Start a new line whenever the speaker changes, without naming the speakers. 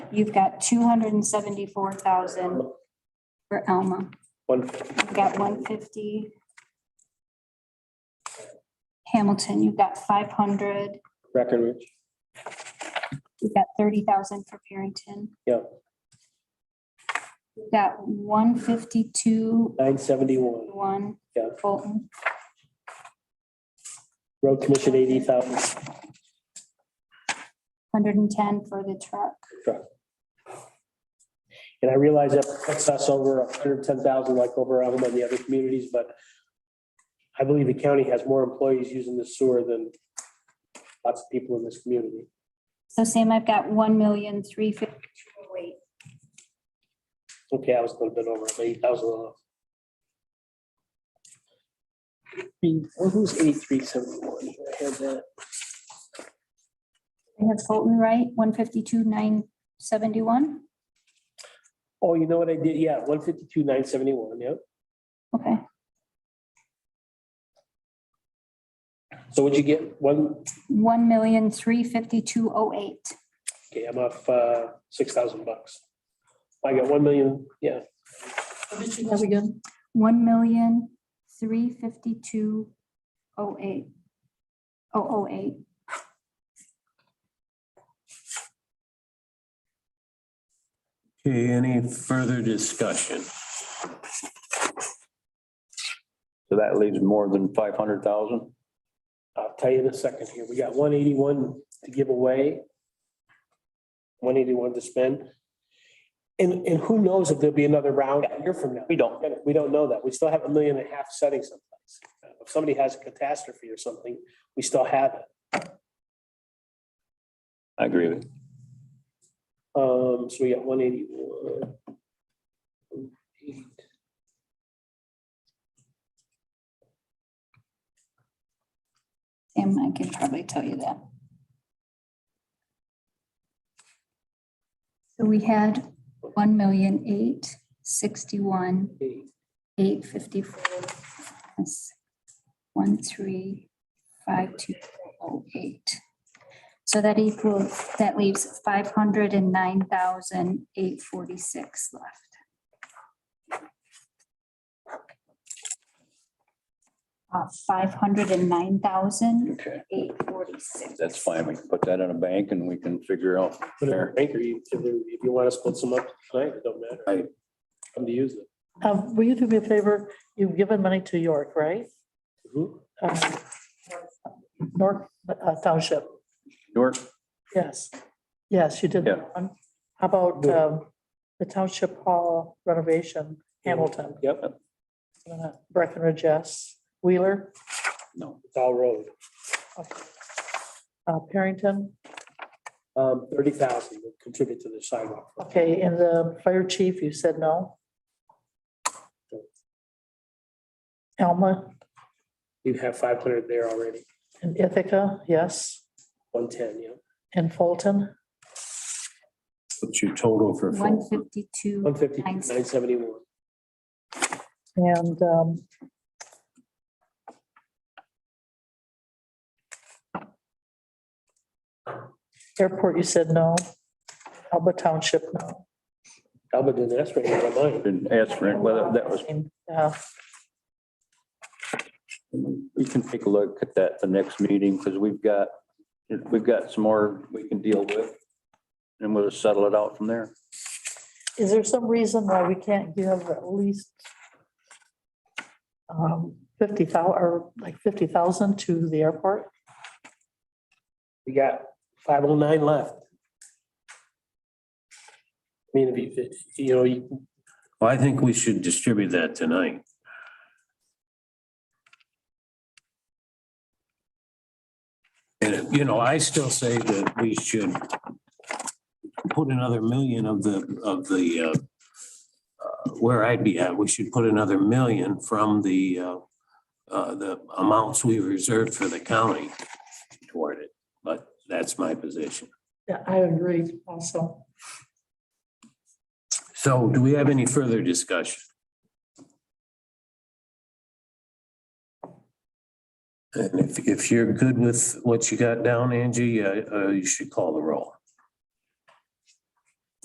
You've got two hundred and seventy-four thousand for Alma.
One,
You've got one fifty. Hamilton, you've got five hundred,
Breckenridge,
you've got thirty thousand for Parrington.
Yeah.
You've got one fifty-two,
nine seventy-one,
one.
Yeah.
Fulton,
road commission eighty thousand,
hundred and ten for the truck.
and I realize that puts us over hundred and ten thousand like over Alma and the other communities, but I believe the county has more employees using the sewer than lots of people in this community.
So Sam, I've got one million, three fifty, oh wait,
Okay, I was a little bit over, eight thousand off. Who's eighty-three seventy-one? I had that.
I have Fulton, right? One fifty-two, nine seventy-one?
Oh, you know what I did? Yeah, one fifty-two, nine seventy-one, yeah.
Okay,
So what'd you get? One,
one million, three fifty-two, oh eight.
okay, I'm off, uh, six thousand bucks. I got one million, yeah,
How much you have again?
One million, three fifty-two, oh eight. Oh, oh eight.
Okay, any further discussion?
So that leaves more than five hundred thousand?
I'll tell you in a second here. We got one eighty-one to give away. One eighty-one to spend. And, and who knows if there'll be another round a year from now?
We don't.
We don't know that. We still have a million and a half setting someplace. If somebody has a catastrophe or something, we still have it.
I agree with you.
Um, so we got one eighty-one.
Sam, I can probably tell you that. So we had one million, eight sixty-one, eight fifty-four. plus One, three, five, two, oh, eight. So that equals, that leaves five hundred and nine thousand, eight forty-six left. Uh, five hundred and nine thousand,
Okay,
eight forty-six.
that's fine. We can put that in a bank and we can figure out.
Whatever, Anchor, you, if you- if you want to split some up tonight, it don't matter.
Right.
Come to use
Um, will you do me a favor? You've given money to York, right?
them.
Um, York uh, Township,
York,
yes. Yes, you did. that one. How about, um, the Township Hall renovation, Hamilton,
Yep,
uh, Breckenridge, yes, Wheeler,
no,
it's all road.
okay. uh, Parrington,
Um, thirty thousand would contribute to the sidewalk.
okay, and the fire chief, you said no? Alma
You'd have five hundred there already,
and Ithaca, yes,
one ten, yeah.
and Fulton?
What's your total for
One
full?
One
fifty-two,
fifty, nine seventy-one.
And um, airport, you said no. Alba Township, no.
Alba did that's right in my mind.
didn't ask for it, whether that was,
Yeah,
we can take a look at that the next meeting because we've got, we've got some more we can deal with. And we'll settle it out from there.
is there some reason why we can't give at least um, fifty thousand, or like fifty thousand to the airport?
We got five oh nine left. I mean, if you, you know, you,
Well, I think we should distribute that tonight. And, you know, I still say that we should put another million of the, of the, uh, uh, where I'd be at, we should put another million from the, uh, uh, the amounts we reserved for the county toward it, but that's my position.
Yeah, I agree also.
So do we have any further discussion? And if, if you're good with what you got down, Angie, uh, uh, you should call the roll.